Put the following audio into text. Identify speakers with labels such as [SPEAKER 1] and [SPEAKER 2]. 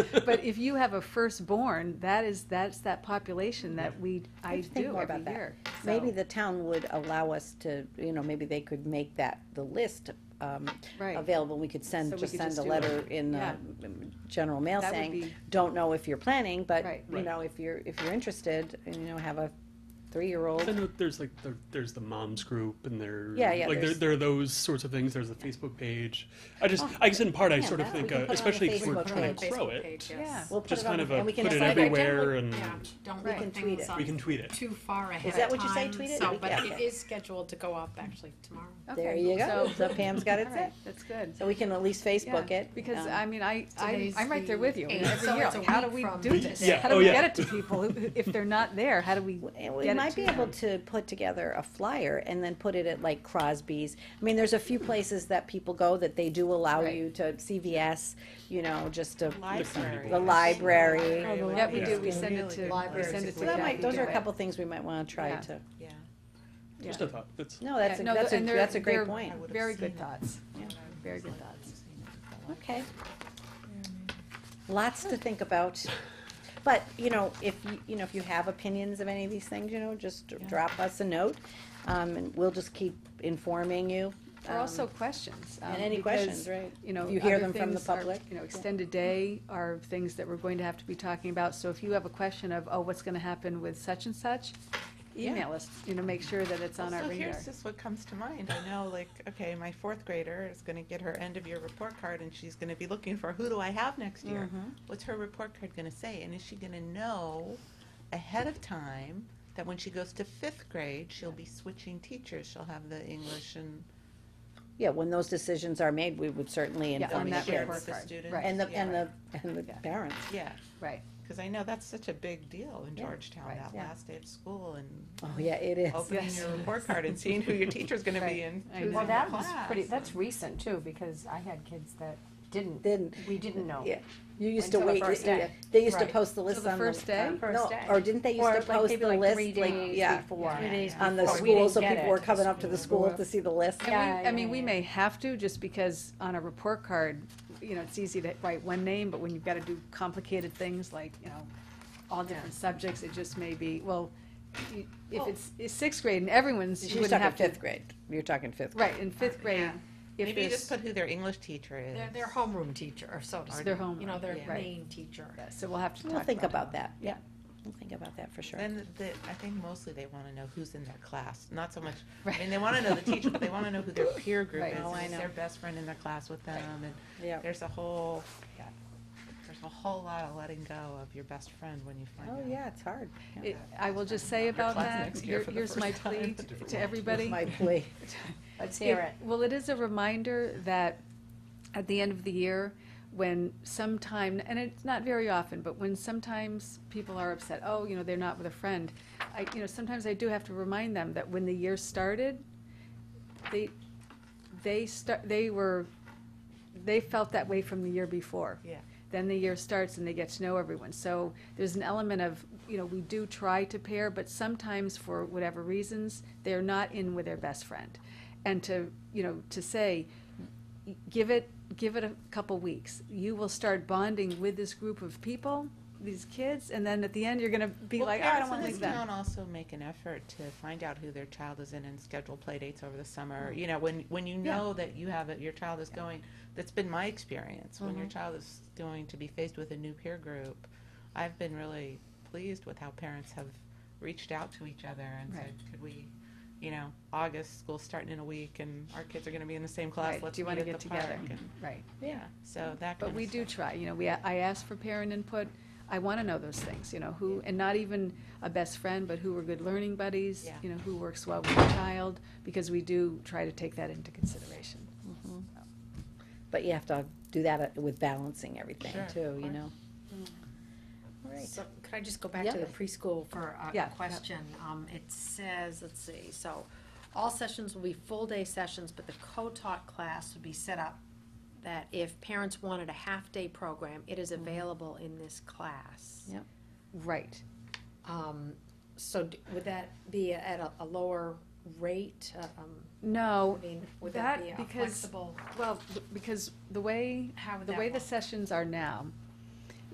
[SPEAKER 1] But if you have a firstborn, that is, that's that population that we, I
[SPEAKER 2] have to think
[SPEAKER 1] do
[SPEAKER 2] more about
[SPEAKER 1] every
[SPEAKER 2] that.
[SPEAKER 1] year. So-
[SPEAKER 2] Maybe the town would allow us to, you know, maybe they could make that, the list, um,
[SPEAKER 1] Right.
[SPEAKER 2] available, we could
[SPEAKER 1] So
[SPEAKER 2] send,
[SPEAKER 1] we
[SPEAKER 2] just
[SPEAKER 1] could
[SPEAKER 2] send
[SPEAKER 1] just
[SPEAKER 2] a
[SPEAKER 1] do
[SPEAKER 2] letter in, uh, general mail
[SPEAKER 1] That would
[SPEAKER 2] saying,
[SPEAKER 1] be-
[SPEAKER 2] don't know if you're planning, but,
[SPEAKER 1] Right.
[SPEAKER 2] you
[SPEAKER 3] Right.
[SPEAKER 2] know, if you're, if you're interested, and, you know, have a
[SPEAKER 3] I
[SPEAKER 2] three-year-old,
[SPEAKER 3] know there's like the, there's the moms group and there
[SPEAKER 2] Yeah, yeah,
[SPEAKER 3] like there,
[SPEAKER 2] there's- Oh,
[SPEAKER 3] there are those sorts of things. There's a Facebook page. I just I guess in part I
[SPEAKER 2] yeah,
[SPEAKER 3] sort of
[SPEAKER 2] that we
[SPEAKER 3] think
[SPEAKER 2] can
[SPEAKER 3] uh,
[SPEAKER 2] put on the
[SPEAKER 3] especially if
[SPEAKER 2] Facebook
[SPEAKER 3] we're
[SPEAKER 2] page.
[SPEAKER 3] trying
[SPEAKER 2] Facebook
[SPEAKER 3] to grow it,
[SPEAKER 1] Yeah.
[SPEAKER 2] we'll put
[SPEAKER 3] just
[SPEAKER 2] it on,
[SPEAKER 3] kind of
[SPEAKER 2] the-
[SPEAKER 3] a
[SPEAKER 2] and we can
[SPEAKER 3] put it
[SPEAKER 2] decide.
[SPEAKER 3] everywhere and
[SPEAKER 4] Yeah, don't
[SPEAKER 2] Right.
[SPEAKER 4] look at
[SPEAKER 2] We can tweet
[SPEAKER 4] things
[SPEAKER 2] it.
[SPEAKER 3] we can
[SPEAKER 4] on
[SPEAKER 3] tweet it.
[SPEAKER 4] too far ahead
[SPEAKER 2] Is that
[SPEAKER 4] of
[SPEAKER 2] what you say,
[SPEAKER 4] time,
[SPEAKER 2] tweet it?
[SPEAKER 4] So,
[SPEAKER 2] We
[SPEAKER 4] but
[SPEAKER 2] can.
[SPEAKER 4] it is scheduled to go up actually tomorrow.
[SPEAKER 2] There
[SPEAKER 1] Okay,
[SPEAKER 2] you go,
[SPEAKER 1] so-
[SPEAKER 2] so Pam's got it
[SPEAKER 1] all
[SPEAKER 2] set,
[SPEAKER 1] right, That's good.
[SPEAKER 2] so we can at least Facebook
[SPEAKER 1] Yeah,
[SPEAKER 2] it.
[SPEAKER 1] Because,
[SPEAKER 2] um,
[SPEAKER 1] I mean, I, I,
[SPEAKER 4] Today's
[SPEAKER 1] I'm right there
[SPEAKER 4] the
[SPEAKER 1] with you,
[SPEAKER 4] eighth,
[SPEAKER 1] every
[SPEAKER 4] so
[SPEAKER 1] year,
[SPEAKER 4] it's a
[SPEAKER 1] like, how do
[SPEAKER 4] week
[SPEAKER 1] we
[SPEAKER 4] from
[SPEAKER 1] do this?
[SPEAKER 3] Yeah,
[SPEAKER 1] How do
[SPEAKER 3] oh,
[SPEAKER 1] we
[SPEAKER 3] yeah.
[SPEAKER 1] get it to people, who- if they're not there, how do we
[SPEAKER 2] And we
[SPEAKER 1] get it
[SPEAKER 2] might
[SPEAKER 1] to
[SPEAKER 2] be able
[SPEAKER 1] them?
[SPEAKER 2] to put together a flyer and then put it at like Crosby's. I mean, there's a few places that people go that they do allow
[SPEAKER 1] Right.
[SPEAKER 2] you to CVS, you know, just to
[SPEAKER 3] Library.
[SPEAKER 2] the library.
[SPEAKER 4] Oh, the
[SPEAKER 1] Yeah, we
[SPEAKER 4] library.
[SPEAKER 1] do, we
[SPEAKER 2] Yeah.
[SPEAKER 1] send it to, we
[SPEAKER 4] Libraries
[SPEAKER 1] send it
[SPEAKER 4] is
[SPEAKER 1] to
[SPEAKER 2] So that might,
[SPEAKER 1] Kathy.
[SPEAKER 2] those are a
[SPEAKER 1] Gibbett.
[SPEAKER 2] couple things we might want to try
[SPEAKER 1] Yeah.
[SPEAKER 2] to.
[SPEAKER 5] Yeah.
[SPEAKER 1] Yeah.
[SPEAKER 3] Just a thought. That's
[SPEAKER 2] No, that's
[SPEAKER 1] Yeah,
[SPEAKER 2] a,
[SPEAKER 1] no,
[SPEAKER 2] that's a,
[SPEAKER 1] and they're-
[SPEAKER 2] that's a great
[SPEAKER 1] they're
[SPEAKER 2] point.
[SPEAKER 5] would've
[SPEAKER 1] Very
[SPEAKER 5] seen
[SPEAKER 1] good
[SPEAKER 5] it.
[SPEAKER 1] thoughts,
[SPEAKER 2] Yeah.
[SPEAKER 1] very good thoughts.
[SPEAKER 2] Okay. Lots to think about. But, you know, if you, you know, if you have opinions of any of these things, you know, just drop us a note. Um, and we'll just keep informing you.
[SPEAKER 1] Or also
[SPEAKER 2] um,
[SPEAKER 1] questions. um,
[SPEAKER 2] And any
[SPEAKER 1] because,
[SPEAKER 2] questions, right?
[SPEAKER 1] You know,
[SPEAKER 2] If you hear
[SPEAKER 1] other
[SPEAKER 2] them from the
[SPEAKER 1] things are-
[SPEAKER 2] public.
[SPEAKER 1] You know, extended day are things that we're going to have to be talking about, so if you have a question of, oh, what's gonna happen with such and such,
[SPEAKER 5] Yeah.
[SPEAKER 1] email us, you know, make sure that it's on our
[SPEAKER 5] So
[SPEAKER 1] radar.
[SPEAKER 5] here's just what comes to mind. I know, like, okay, my fourth grader is gonna get her end of year report card and she's gonna be looking for, who do I have next year?
[SPEAKER 1] Mm-hmm.
[SPEAKER 5] What's her report card gonna say? And is she gonna know ahead of time that when she goes to fifth grade, she'll be switching teachers? She'll have the English and.
[SPEAKER 2] Yeah, when those decisions are made, we would certainly
[SPEAKER 1] Yeah,
[SPEAKER 2] inform
[SPEAKER 1] on
[SPEAKER 2] the
[SPEAKER 1] that
[SPEAKER 2] kids.
[SPEAKER 5] share with
[SPEAKER 1] report
[SPEAKER 5] the
[SPEAKER 1] card,
[SPEAKER 5] students.
[SPEAKER 1] right.
[SPEAKER 2] And the, and
[SPEAKER 5] Yeah.
[SPEAKER 2] the, and the
[SPEAKER 1] Yeah.
[SPEAKER 2] parents.
[SPEAKER 5] Yeah,
[SPEAKER 1] Right,
[SPEAKER 5] cause I know that's such a big deal in
[SPEAKER 2] Yeah,
[SPEAKER 5] Georgetown,
[SPEAKER 1] right, Uh,
[SPEAKER 5] that
[SPEAKER 2] yeah.
[SPEAKER 5] last day of school and
[SPEAKER 2] Oh, yeah, it is.
[SPEAKER 5] opening
[SPEAKER 1] Yes.
[SPEAKER 5] your report card and seeing who your teacher's gonna
[SPEAKER 1] Right.
[SPEAKER 5] be in.
[SPEAKER 1] I
[SPEAKER 5] choosing
[SPEAKER 1] know.
[SPEAKER 6] Well,
[SPEAKER 5] the
[SPEAKER 6] that was
[SPEAKER 5] class.
[SPEAKER 6] pretty, that's recent too, because I had kids that didn't,
[SPEAKER 2] Didn't,
[SPEAKER 6] we didn't know.
[SPEAKER 2] yeah, you used to
[SPEAKER 6] Until the
[SPEAKER 2] wait,
[SPEAKER 6] first
[SPEAKER 2] yeah,
[SPEAKER 6] day.
[SPEAKER 2] they used to
[SPEAKER 6] Right.
[SPEAKER 2] post the list
[SPEAKER 1] the
[SPEAKER 2] on the.
[SPEAKER 1] first day?
[SPEAKER 2] on-
[SPEAKER 6] First
[SPEAKER 2] No,
[SPEAKER 6] day.
[SPEAKER 2] or didn't they used
[SPEAKER 6] Or
[SPEAKER 2] to
[SPEAKER 6] like
[SPEAKER 2] post
[SPEAKER 6] maybe
[SPEAKER 2] the
[SPEAKER 6] like
[SPEAKER 2] list,
[SPEAKER 6] three
[SPEAKER 2] like,
[SPEAKER 6] days
[SPEAKER 2] yeah,
[SPEAKER 6] before.
[SPEAKER 5] Three days
[SPEAKER 2] on the
[SPEAKER 6] before. We
[SPEAKER 2] school,
[SPEAKER 6] didn't
[SPEAKER 2] so
[SPEAKER 6] get
[SPEAKER 2] people were
[SPEAKER 6] it.
[SPEAKER 2] coming up to the school to see the list.
[SPEAKER 1] And we,
[SPEAKER 6] Yeah,
[SPEAKER 1] I mean,
[SPEAKER 6] yeah,
[SPEAKER 1] we
[SPEAKER 6] yeah.
[SPEAKER 1] may have to, just because on a report card, you know, it's easy to write one name, but when you've gotta do complicated things like, you know, all different subjects, it just may be, well, you- if it's, it's sixth grade and everyone's, you
[SPEAKER 2] She's
[SPEAKER 1] wouldn't
[SPEAKER 2] talking
[SPEAKER 1] have to.
[SPEAKER 2] fifth grade, you're talking fifth grade.
[SPEAKER 1] Right, in fifth grade,
[SPEAKER 4] Yeah.
[SPEAKER 1] if
[SPEAKER 5] Maybe you
[SPEAKER 1] there's,
[SPEAKER 5] just put who their English teacher is.
[SPEAKER 6] Their, their homeroom teacher, so to
[SPEAKER 5] Or
[SPEAKER 6] speak.
[SPEAKER 1] their homeroom,
[SPEAKER 6] You know, their
[SPEAKER 1] yeah.
[SPEAKER 6] main teacher.
[SPEAKER 1] so we'll have to
[SPEAKER 2] We'll
[SPEAKER 1] talk
[SPEAKER 2] think
[SPEAKER 1] about
[SPEAKER 2] about that, yeah, we'll think about that for sure.
[SPEAKER 5] Then the, I think mostly they want to know who's in their class, not so much, I
[SPEAKER 1] Right.
[SPEAKER 5] mean, they want to know the teacher, but they want to know who their peer group
[SPEAKER 1] Right.
[SPEAKER 5] is.
[SPEAKER 1] Oh,
[SPEAKER 2] I
[SPEAKER 5] and Is
[SPEAKER 2] know.
[SPEAKER 5] their best friend in their class with them?
[SPEAKER 2] Yeah.
[SPEAKER 5] And there's a whole, there's a whole lot of letting go of your best friend when you find out.
[SPEAKER 2] Oh, yeah, it's hard.
[SPEAKER 1] it. It- I will just say about
[SPEAKER 5] class
[SPEAKER 1] that,
[SPEAKER 5] next year
[SPEAKER 1] here-
[SPEAKER 5] for the
[SPEAKER 1] here's
[SPEAKER 5] first
[SPEAKER 1] my
[SPEAKER 5] time.
[SPEAKER 1] plea
[SPEAKER 5] It's a different
[SPEAKER 1] to
[SPEAKER 5] world.
[SPEAKER 1] everybody.
[SPEAKER 2] My plea.
[SPEAKER 6] Let's hear it.
[SPEAKER 1] Well, it is a reminder that at the end of the year, when sometime, and it's not very often, but when sometimes people are upset, oh, you know, they're not with a friend, I, you know, sometimes I do have to remind them that when the year started, they, they start, they were, they felt that way from the year before.
[SPEAKER 5] Yeah.
[SPEAKER 1] Then the year starts and they get to know everyone. So there's an element of, you know, we do try to pair, but sometimes for whatever reasons, they're not in with their best friend. And to, you know, to say, y- give it, give it a couple weeks. You will start bonding with this group of people, these kids, and then at the end, you're gonna be
[SPEAKER 5] Well,
[SPEAKER 1] like, "Oh, I don't
[SPEAKER 5] parents
[SPEAKER 1] wanna
[SPEAKER 5] in
[SPEAKER 1] leave
[SPEAKER 5] this
[SPEAKER 1] them.
[SPEAKER 5] town also make an effort to find out who their child is in and schedule play dates over the summer. You know, when, when you
[SPEAKER 1] Yeah.
[SPEAKER 5] know that you have, it, your child is going, that's been my experience. When
[SPEAKER 1] Mm-hmm.
[SPEAKER 5] your child is going to be faced with a new peer group, I've been really pleased with how parents have reached out to each other and
[SPEAKER 1] Right.
[SPEAKER 5] said, could we, you know, August, school's starting in a week and our kids are gonna be in the same class,
[SPEAKER 1] Right,
[SPEAKER 5] let's
[SPEAKER 1] do you
[SPEAKER 5] meet
[SPEAKER 1] wanna
[SPEAKER 5] at
[SPEAKER 1] get
[SPEAKER 5] the park.
[SPEAKER 1] together?
[SPEAKER 5] and-
[SPEAKER 1] Right.
[SPEAKER 5] Yeah, so that kind
[SPEAKER 1] But
[SPEAKER 5] of
[SPEAKER 1] we do
[SPEAKER 5] stuff.
[SPEAKER 1] try, you know, we, I ask for parent input, I wanna know those things, you know, who, and not even a best friend, but who are good learning buddies,
[SPEAKER 5] Yeah.
[SPEAKER 1] you know, who works well with the child, because we do try to take that into consideration.
[SPEAKER 2] But you have to do that uh, with balancing everything
[SPEAKER 5] Sure,
[SPEAKER 2] too,
[SPEAKER 5] of
[SPEAKER 2] you
[SPEAKER 5] course.
[SPEAKER 2] know? All right.
[SPEAKER 6] So, could I just go back to
[SPEAKER 2] Yeah.
[SPEAKER 6] the preschool for a-
[SPEAKER 1] Yeah,
[SPEAKER 6] a question? Um, it says, let's see, so, all sessions will be full-day sessions, but the co-taught class would be set up that if parents wanted a half-day program, it
[SPEAKER 2] Mm-hmm.
[SPEAKER 6] is available in this class.
[SPEAKER 2] Yep.
[SPEAKER 1] Right,
[SPEAKER 6] Um, so d- would that be at a, a lower rate? Uh, Um,
[SPEAKER 1] no,
[SPEAKER 6] I mean, would
[SPEAKER 1] that
[SPEAKER 6] that be a
[SPEAKER 1] because-
[SPEAKER 6] flexible,
[SPEAKER 1] well, th- because the way,
[SPEAKER 6] how would
[SPEAKER 1] the
[SPEAKER 6] that
[SPEAKER 1] way the
[SPEAKER 6] work?
[SPEAKER 1] sessions are now,